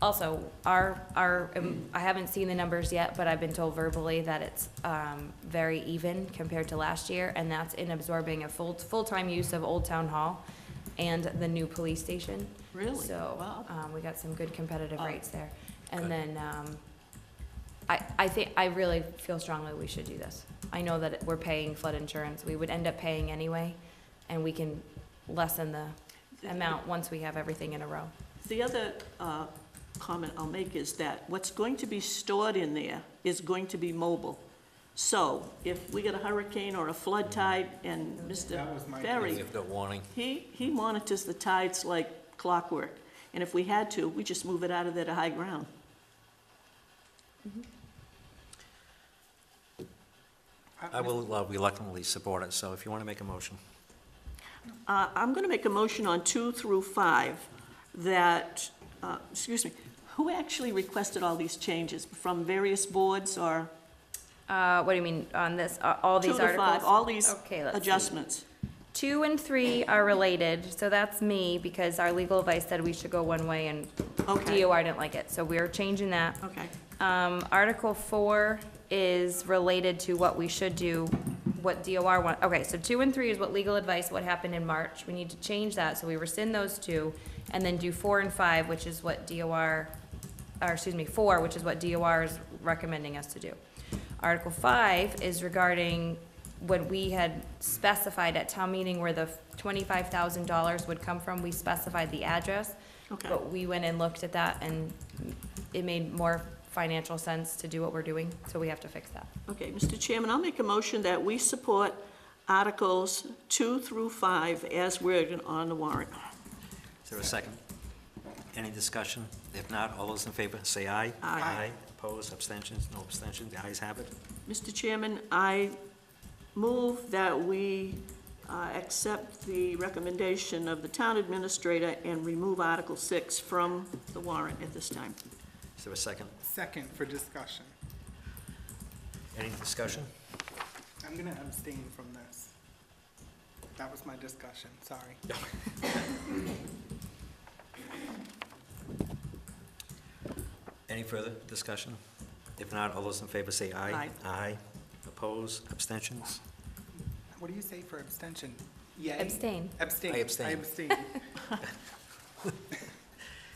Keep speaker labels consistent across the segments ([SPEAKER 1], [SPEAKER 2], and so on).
[SPEAKER 1] Also, our, our, um, I haven't seen the numbers yet, but I've been told verbally that it's um, very even compared to last year, and that's in absorbing a full, full-time use of Old Town Hall and the new police station.
[SPEAKER 2] Really?
[SPEAKER 1] So,
[SPEAKER 2] Wow.
[SPEAKER 1] um, we got some good competitive
[SPEAKER 2] Oh.
[SPEAKER 1] rates there.
[SPEAKER 3] Good.
[SPEAKER 1] And then, um, I, I think, I really feel strongly we should do this. I know that we're paying flood insurance, we would end up paying anyway, and we can lessen the amount once we have everything in a row.
[SPEAKER 2] The other uh, comment I'll make is that what's going to be stored in there is going to be mobile. So if we get a hurricane or a flood tide and Mr.
[SPEAKER 4] That was my
[SPEAKER 2] Ferry,
[SPEAKER 3] Give the warning.
[SPEAKER 2] he, he monitors the tides like clockwork. And if we had to, we just move it out of there to high ground.
[SPEAKER 3] I will uh, reluctantly support it, so if you want to make a motion.
[SPEAKER 2] Uh, I'm going to make a motion on two through five that, uh, excuse me, who actually requested all these changes? From various boards or
[SPEAKER 1] Uh, what do you mean, on this, uh, all
[SPEAKER 2] two
[SPEAKER 1] these
[SPEAKER 2] to
[SPEAKER 1] articles?
[SPEAKER 2] five? All these
[SPEAKER 1] Okay, let's see.
[SPEAKER 2] adjustments?
[SPEAKER 1] Two and three are related, so that's me, because our legal advice said we should go one way, and
[SPEAKER 2] Okay.
[SPEAKER 1] DOR didn't like it, so we're changing that.
[SPEAKER 2] Okay.
[SPEAKER 1] Um, Article four is related to what we should do, what DOR want, okay, so two and three is what legal advice, what happened in March, we need to change that, so we rescind those two, and then do four and five, which is what DOR, or excuse me, four, which is what DOR is recommending us to do. Article five is regarding what we had specified at town meeting where the twenty-five thousand dollars would come from, we specified the address.
[SPEAKER 2] Okay.
[SPEAKER 1] But we went and looked at that and it made more financial sense to do what we're doing, so we have to fix that.
[SPEAKER 2] Okay, Mr. Chairman, I'll make a motion that we support Articles 2 through 5 as written on the warrant.
[SPEAKER 3] Is there a second? Any discussion? If not, all those in favor, say aye.
[SPEAKER 2] Aye.
[SPEAKER 3] Opposed, abstentions, no abstentions, the ayes have it.
[SPEAKER 2] Mr. Chairman, I move that we uh, accept the recommendation of the town administrator and remove Article 6 from the warrant at this time.
[SPEAKER 3] Is there a second?
[SPEAKER 4] Second for discussion.
[SPEAKER 3] Any discussion?
[SPEAKER 4] I'm gonna abstain from this. That was my discussion, sorry.
[SPEAKER 3] Any further discussion? If not, all those in favor, say aye.
[SPEAKER 2] Aye.
[SPEAKER 3] Opposed, abstentions?
[SPEAKER 4] What do you say for abstention? Yay?
[SPEAKER 1] Abstain.
[SPEAKER 4] Abstain.
[SPEAKER 3] I abstain.
[SPEAKER 4] I abstain. It's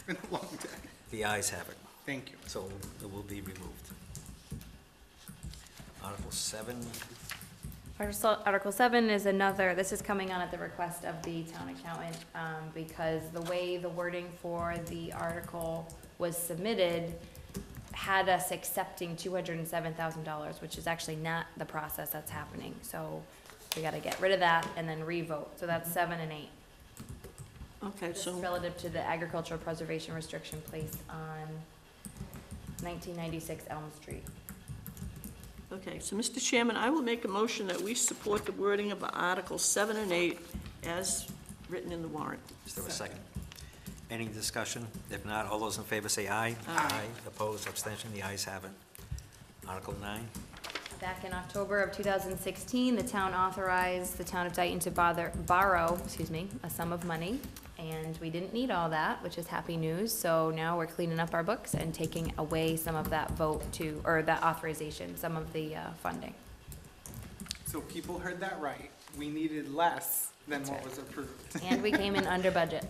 [SPEAKER 4] been a long day.
[SPEAKER 3] The ayes have it,
[SPEAKER 4] Thank you.
[SPEAKER 3] so it will be removed. Article seven,
[SPEAKER 1] Article Article seven is another, this is coming on at the request of the town accountant, um, because the way the wording for the article was submitted had us accepting two hundred and seven thousand dollars, which is actually not the process that's happening, so we gotta get rid of that and then revote, so that's seven and eight.
[SPEAKER 2] Okay,
[SPEAKER 1] This
[SPEAKER 2] so,
[SPEAKER 1] is relative to the agricultural preservation restriction placed on nineteen ninety-six Elm Street.
[SPEAKER 2] okay, so, Mr. Chairman, I will make a motion that we support the wording of Articles 7 and 8 as written in the warrant.
[SPEAKER 3] is there a second? Any discussion? If not, all those in favor, say aye. Aye. Opposed, abstention, the ayes have it. Article nine,
[SPEAKER 1] Back in October of 2016, the town authorized the town of Dayton to bother, borrow, excuse me, a sum of money, and we didn't need all that, which is happy news, so now we're cleaning up our books and taking away some of that vote to, or that authorization, some of the uh, funding.
[SPEAKER 4] So people heard that right. We needed less than what was approved.
[SPEAKER 1] And we came in under budget.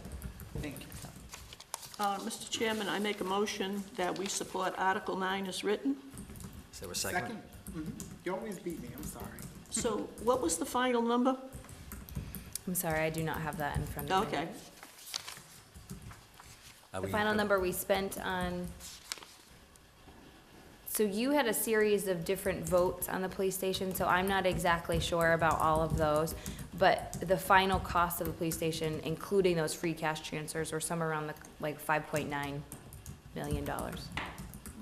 [SPEAKER 4] Thank you.
[SPEAKER 2] Uh, Mr. Chairman, I make a motion that we support Article 9 as written.
[SPEAKER 3] is there a
[SPEAKER 4] Second, Mhm. you always beat me, I'm sorry.
[SPEAKER 2] So what was the final number?
[SPEAKER 1] I'm sorry, I do not have that in front of me.
[SPEAKER 2] Okay,
[SPEAKER 3] Are
[SPEAKER 1] The
[SPEAKER 3] we-
[SPEAKER 1] final number Uh, we spent on, so you had a series of different votes on the police station, so I'm not exactly sure about all of those. But the final cost of the police station, including those free cash transfers, were somewhere around the, like, five point nine million dollars.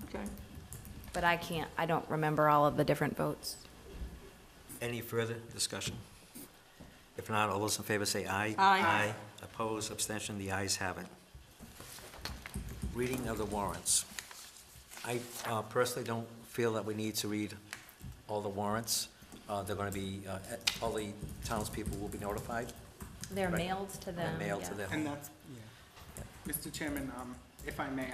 [SPEAKER 2] okay.
[SPEAKER 1] But I can't, I don't remember all of the different votes.
[SPEAKER 3] Any further discussion? If not, all those in favor say aye.
[SPEAKER 2] Aye.
[SPEAKER 3] Opposed, abstention, the ayes have it. Reading of the warrants. I uh, personally don't feel that we need to read all the warrants. Uh, They're going to be, uh, all the townspeople will be notified
[SPEAKER 1] They're
[SPEAKER 3] Right.
[SPEAKER 1] mailed to them,
[SPEAKER 3] and mailed to
[SPEAKER 1] yeah.
[SPEAKER 3] their home.
[SPEAKER 4] And that's, yeah. Mr. Chairman, um, if I may,